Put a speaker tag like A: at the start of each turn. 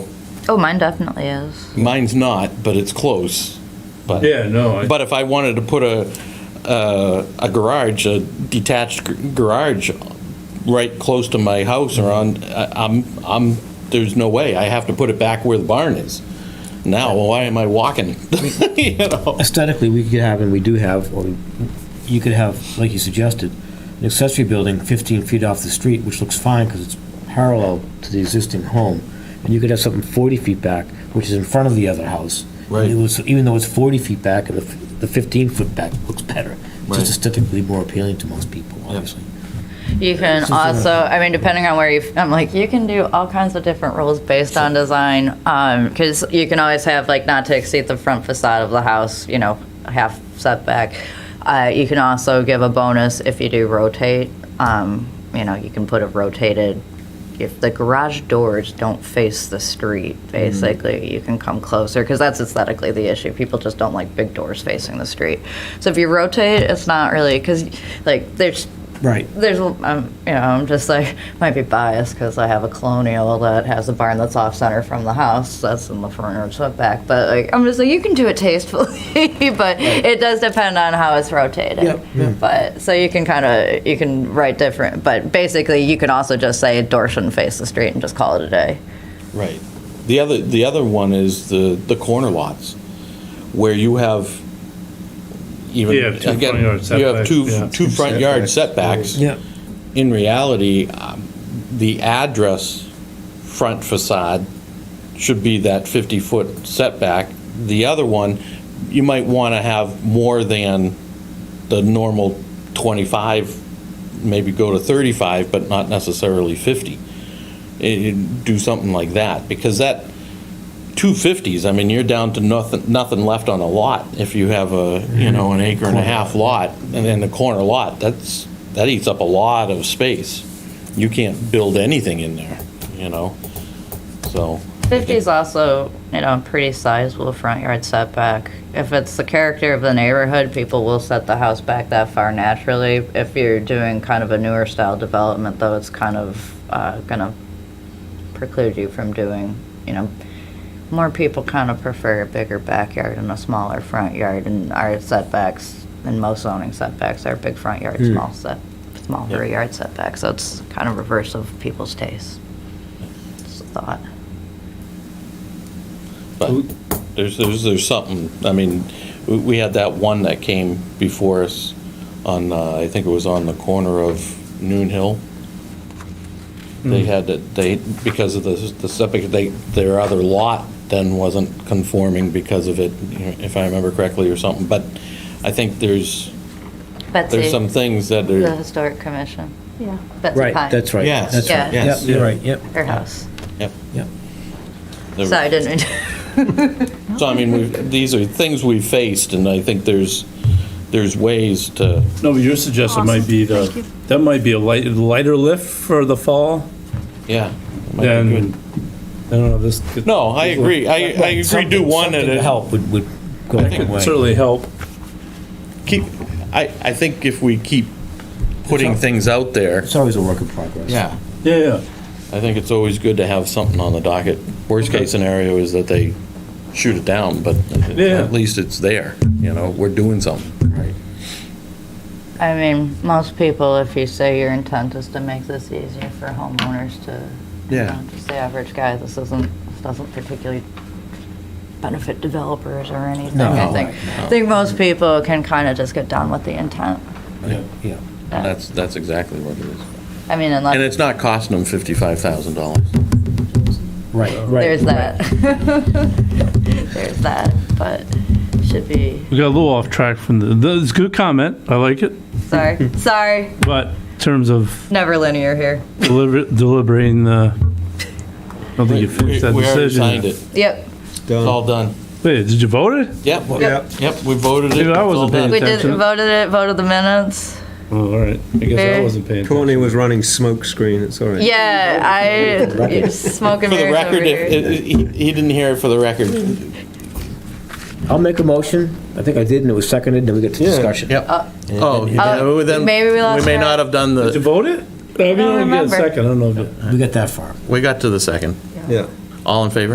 A: Oh, mine definitely is.
B: Mine's not, but it's close. But
C: Yeah, no, I-
B: But if I wanted to put a a, a garage, a detached g- garage, right close to my house or on, I- I'm I'm there's no way. I have to put it back where the barn is. Now, why am I walking? you know.
D: Aesthetically, we could have, and we do have, or you could have, like you suggested, an accessory building 15 feet off the street, which looks fine because it's parallel to the existing home. And you could have something 40 feet back, which is in front of the other house. And
B: Right.
D: it was- Even though it's 40 feet back, and the f- the 15 foot back looks better. It's
B: Right.
D: just aesthetically more appealing to most people, obviously.
A: You can
D: Something like
A: also, I mean, depending on where you, I'm like, you can do all kinds of different rules based on design. Um, cause you can always have like not to exceed the front facade of the house, you know, half setback. Uh, you can also give a bonus if you do rotate. Um, you know, you can put a rotated, if the garage doors don't face the street, basically, you can come closer because that's aesthetically the issue. People just don't like big doors facing the street. So if you rotate, it's not really because like there's
D: Right.
A: there's um, you know i'm just like might be biased because i have a colonial that has a barn that's off center from the house that's in the front or setback but like i'm just like you can do it tastefully but it does depend on how it's rotated
D: Yep, yep.
A: but so you can kind of you can write different but basically you can also just say a door shouldn't face the street and just call it a day
B: Right. The other, the other one is the, the corner lots, where you have even.
C: You have two
B: again,
C: front yard
B: You have
C: setbacks, yeah.
B: two, two front yard setbacks.
D: Yeah.
B: In reality, um, the address front facade should be that 50-foot setback. The other one, you might want to have more than the normal 25, maybe go to 35, but not necessarily 50. It- it- Do something like that, because that, 250s, I mean, you're down to nothing, nothing left on a lot if you have a, you know, an acre and a half lot, and then the corner lot, that's, that eats up a lot of space. You can't build anything in there, you know, so.
A: 50 is also, you know, a pretty sizable front yard setback. If it's the character of the neighborhood, people will set the house back that far naturally. If you're doing kind of a newer style development, though, it's kind of uh, going to preclude you from doing, you know, more people kind of prefer a bigger backyard and a smaller front yard, and our setbacks, and most zoning setbacks are big front yard, small set, small
B: Yep.
A: rear yard setback. So it's kind of reverse of people's tastes. It's a thought.
B: But there's, there's, there's something, I mean, we, we had that one that came before us on, uh, I think it was on the corner of Noon Hill. They had, to- they, because of the, the septic, they, their other lot then wasn't conforming because of it, you know, if I remember correctly or something, but I think there's,
A: Betsy.
B: there's some things that
A: The
B: are,
A: historic commission.
E: Yeah.
A: Betsy
D: Right,
A: Pye.
D: that's right.
B: Yes.
D: That's right.
A: Yeah.
D: Yep, You're right, yep,
A: Her house.
B: yep.
D: yep.
B: there
A: So I didn't mean to-
B: So I mean, we've- these are things we've faced, and I think there's, there's ways to,
C: No, but your suggestion might be the, that might be a light, lighter lift for the fall
B: yeah. might be good.
C: than, I don't know, this. could-
B: No, I agree. I, I agree, do one and
D: Something to
B: it help.
D: help would, would go a
C: That
D: long
C: could
D: way.
C: certainly help.
B: Keep, I, I think if we keep putting things out there.
D: It's always a work in progress.
C: Yeah, yeah.
B: I think it's always good to have something on the docket. Worst case scenario is that they shoot it down, but
C: Yeah.
B: at least it's there, you know, we're doing something.
D: Right.
A: I mean, most people, if you say your intent is to make this easier for homeowners to, you
B: Yeah.
A: know, just the average guy, this isn't, this doesn't particularly benefit developers or anything.
D: No,
A: I
D: no,
A: think, I think most people can kind of just get done with the intent.
D: Yeah.
B: That's, that's exactly what it is.
A: I mean, unless.
B: And it's not costing them fifty-five thousand dollars.
D: Right, right.
A: There's that. There's that, but should be,
F: We got a little off track from the, the- it's a good comment, I like it,
A: sorry, sorry,
F: but in terms of
A: never linear here.
F: deliver- deliberating the, I don't think
B: We
F: you finished that
B: we already
F: decision.
B: signed it.
A: Yep,
B: It's all done.
F: Wait, did you vote it?
B: Yep, yep, we voted it.
F: Dude, I
B: It's all
F: wasn't paying
B: done.
A: we did,
F: Attention.
A: voted it, voted the minutes.
F: Oh, all right, I guess I
A: Fair.
F: wasn't paying attention.
G: Courtney was running smoke screen, it's all right.
A: Yeah, I, smoking
B: For the
A: mirrors over
B: record,
A: here.
B: if, if- he, he didn't hear it for the record.
D: I'll make a motion. I think I did, and it was seconded, then we get to discussion.
B: Yep. Oh, yeah,
A: Oh,
B: well, then
A: Uh, maybe we lost
B: may
A: track.
B: not have done
C: Did you
B: the,
C: vote it? I mean, I
A: don't
C: don't get a
A: remember.
C: second, I don't know. if it-
D: We got that far.
B: we got to the second.
G: Yeah.
B: All in favor?